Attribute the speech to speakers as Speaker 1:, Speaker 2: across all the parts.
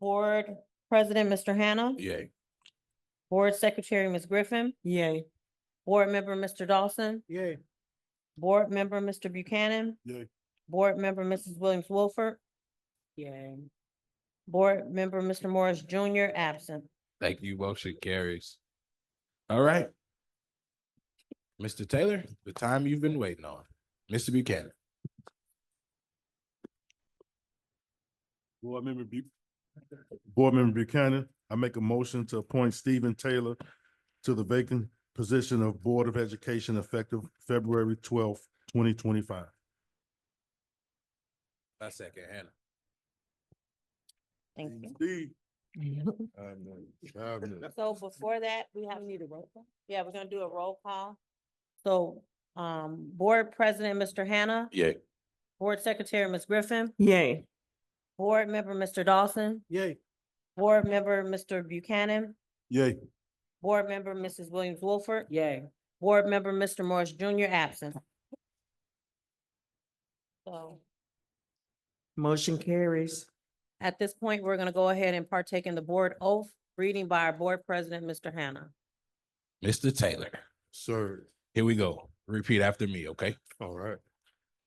Speaker 1: Board President, Mr. Hannah.
Speaker 2: Yay.
Speaker 1: Board Secretary, Ms. Griffin.
Speaker 3: Yay.
Speaker 1: Board Member, Mr. Dawson.
Speaker 2: Yay.
Speaker 1: Board Member, Mr. Buchanan.
Speaker 2: Yay.
Speaker 1: Board Member, Mrs. Williams Wilford.
Speaker 3: Yay.
Speaker 1: Board Member, Mr. Morris Junior, absent.
Speaker 2: Thank you. Motion carries. All right. Mr. Taylor, the time you've been waiting on. Mr. Buchanan.
Speaker 4: Board Member Bu- Board Member Buchanan, I make a motion to appoint Stephen Taylor to the vacant position of Board of Education effective February twelfth, twenty twenty-five.
Speaker 2: I second Hannah.
Speaker 1: Thank you. So before that, we have. Need a roll call? Yeah, we're gonna do a roll call. So, um, Board President, Mr. Hannah.
Speaker 2: Yay.
Speaker 1: Board Secretary, Ms. Griffin.
Speaker 3: Yay.
Speaker 1: Board Member, Mr. Dawson.
Speaker 2: Yay.
Speaker 1: Board Member, Mr. Buchanan.
Speaker 4: Yay.
Speaker 1: Board Member, Mrs. Williams Wolford.
Speaker 3: Yay.
Speaker 1: Board Member, Mr. Morris Junior, absent. So
Speaker 3: Motion carries.
Speaker 1: at this point, we're gonna go ahead and partake in the board oath, reading by our Board President, Mr. Hannah.
Speaker 2: Mr. Taylor,
Speaker 4: Sir,
Speaker 2: here we go. Repeat after me, okay?
Speaker 4: all right.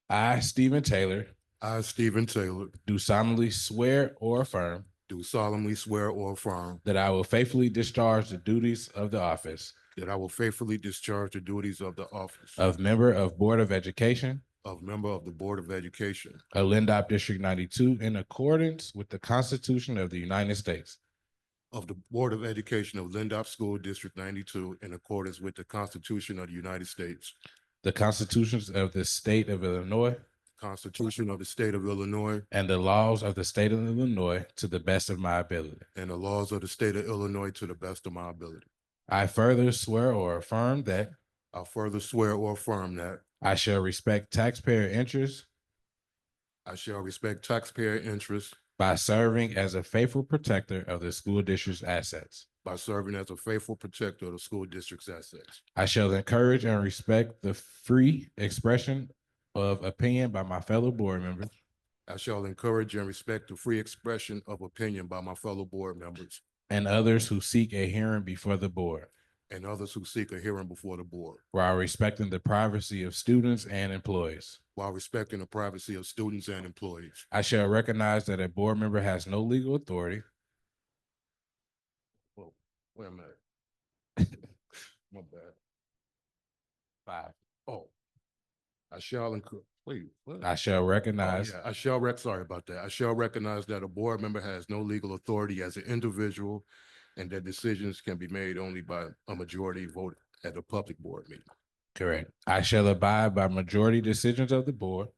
Speaker 2: I, Stephen Taylor,
Speaker 4: I, Stephen Taylor,
Speaker 2: do solemnly swear or affirm
Speaker 4: do solemnly swear or affirm
Speaker 2: that I will faithfully discharge the duties of the office
Speaker 4: that I will faithfully discharge the duties of the office
Speaker 2: of member of Board of Education
Speaker 4: of member of the Board of Education
Speaker 2: of Lindop District ninety-two in accordance with the Constitution of the United States
Speaker 4: of the Board of Education of Lindop School District ninety-two in accordance with the Constitution of the United States
Speaker 2: the constitutions of the state of Illinois
Speaker 4: Constitution of the State of Illinois
Speaker 2: and the laws of the state of Illinois to the best of my ability.
Speaker 4: and the laws of the State of Illinois to the best of my ability.
Speaker 2: I further swear or affirm that
Speaker 4: I further swear or affirm that
Speaker 2: I shall respect taxpayer interests
Speaker 4: I shall respect taxpayer interests
Speaker 2: by serving as a faithful protector of the school district's assets.
Speaker 4: by serving as a faithful protector of the school district's assets.
Speaker 2: I shall encourage and respect the free expression of opinion by my fellow board members
Speaker 4: I shall encourage and respect the free expression of opinion by my fellow board members
Speaker 2: and others who seek a hearing before the board
Speaker 4: and others who seek a hearing before the board
Speaker 2: while respecting the privacy of students and employees.
Speaker 4: while respecting the privacy of students and employees.
Speaker 2: I shall recognize that a board member has no legal authority
Speaker 4: Whoa, wait a minute. My bad.
Speaker 2: Five.
Speaker 4: Oh. I shall encourage, wait. what?
Speaker 2: I shall
Speaker 4: Oh,
Speaker 2: recognize
Speaker 4: yeah, I shall rec, sorry about that. I shall recognize that a board member has no legal authority as an individual and that decisions can be made only by a majority vote at a public board meeting.
Speaker 2: correct. I shall abide by majority decisions of the board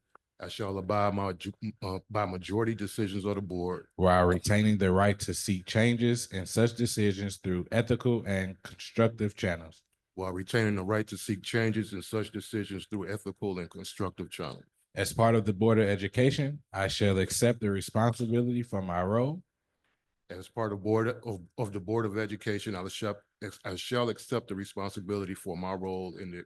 Speaker 4: I shall abide my, ju- uh, by majority decisions of the board
Speaker 2: while retaining the right to seek changes in such decisions through ethical and constructive channels.
Speaker 4: while retaining the right to seek changes in such decisions through ethical and constructive channels.
Speaker 2: As part of the Board of Education, I shall accept the responsibility for my role
Speaker 4: As part of board of, of the Board of Education, I shall, I shall accept the responsibility for my role in the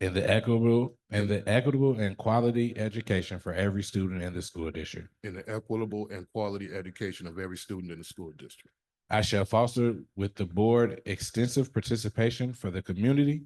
Speaker 2: in the equitable and the equitable and quality education for every student in the school district.
Speaker 4: in the equitable and quality education of every student in the school district.
Speaker 2: I shall foster with the board extensive participation for the community,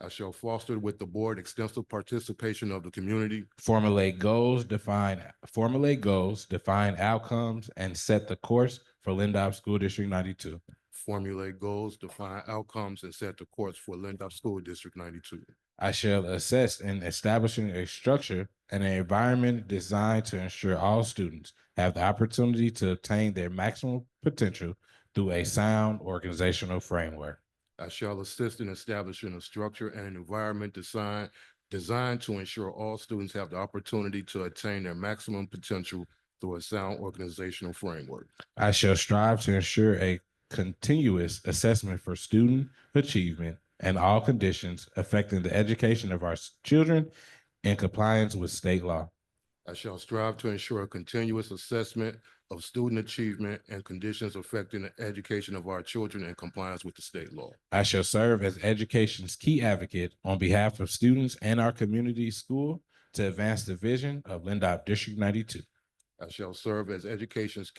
Speaker 4: I shall foster with the board extensive participation of the community,
Speaker 2: formulate goals, define formulate goals, define outcomes, and set the course for Lindop School District ninety-two.
Speaker 4: formulate goals, define outcomes, and set the course for Lindop School District ninety-two.
Speaker 2: I shall assist in establishing a structure and an environment designed to ensure all students have the opportunity to obtain their maximum potential through a sound organizational framework.
Speaker 4: I shall assist in establishing a structure and an environment designed, designed to ensure all students have the opportunity to attain their maximum potential through a sound organizational framework.
Speaker 2: I shall strive to ensure a continuous assessment for student achievement and all conditions affecting the education of our s- children in compliance with state law.
Speaker 4: I shall strive to ensure a continuous assessment of student achievement and conditions affecting the education of our children in compliance with the state law.
Speaker 2: I shall serve as education's key advocate on behalf of students and our community school to advance the vision of Lindop District ninety-two.
Speaker 4: I shall serve as education's